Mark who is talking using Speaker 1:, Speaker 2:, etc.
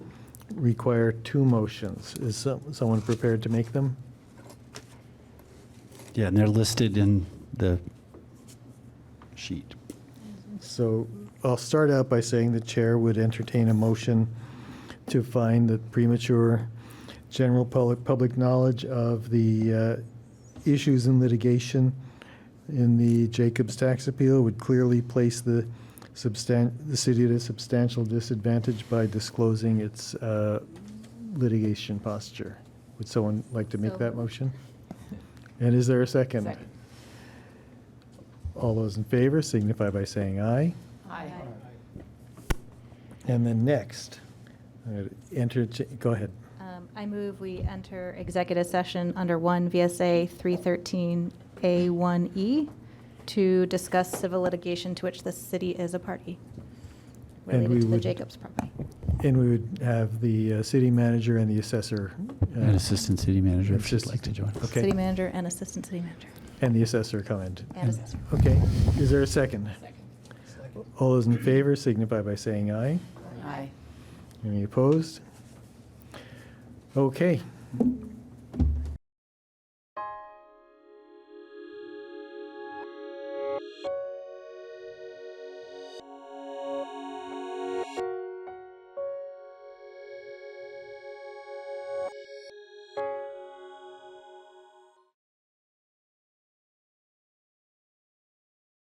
Speaker 1: require two motions. Is some- someone prepared to make them?
Speaker 2: Yeah, and they're listed in the sheet.
Speaker 1: So I'll start out by saying the chair would entertain a motion to find that premature general public, public knowledge of the uh, issues in litigation in the Jacobs tax appeal would clearly place the substan, the city at a substantial disadvantage by disclosing its uh, litigation posture. Would someone like to make
Speaker 3: So
Speaker 1: that
Speaker 3: moved.
Speaker 1: motion? And is there a second?
Speaker 3: Second.
Speaker 1: All those in favor signify by saying aye.
Speaker 3: Aye.
Speaker 1: And then next, uh, enter, go ahead.
Speaker 3: Um, I move we enter executive session under 1 VSA 313A1E E to discuss civil litigation to which the city is a party
Speaker 1: And we
Speaker 3: related to the
Speaker 1: would-
Speaker 3: Jacobs property.
Speaker 1: And we would have the uh, city manager and the assessor. uh,
Speaker 2: And Assistant City Manager, if she'd like to join us.
Speaker 1: Okay.
Speaker 3: City manager and assistant city manager.
Speaker 1: And the assessor comment.
Speaker 3: And assessor.
Speaker 1: Okay, is there a second? All those in favor signify by saying aye.
Speaker 4: Aye.
Speaker 1: Any opposed? Okay,